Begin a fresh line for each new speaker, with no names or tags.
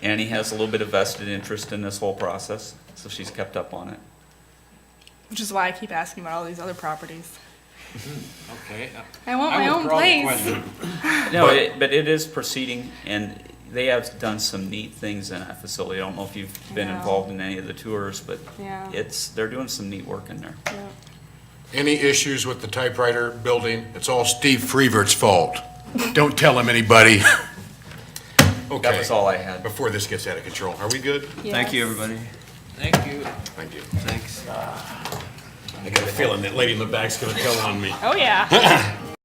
Annie has a little bit of vested interest in this whole process, so she's kept up on it.
Which is why I keep asking about all these other properties.
Okay. uh,
I want
I
my own
withdraw the
place.
question.
No, it- but it is proceeding, and they have done some neat things in that facility. I don't know if you've been
No.
involved in any of the tours, but
Yeah.
it's, they're doing some neat work in there.
yeah.
Any issues with the typewriter building? It's all Steve Freevert's fault. Don't tell him anybody.
That
Okay,
was all I had.
before this gets out of control, are we good?
Thank you,
Yes.
everybody.
Thank you.
Thank you.
Thanks.
I got a feeling that lady in the back's gonna tell on me.
Oh, yeah.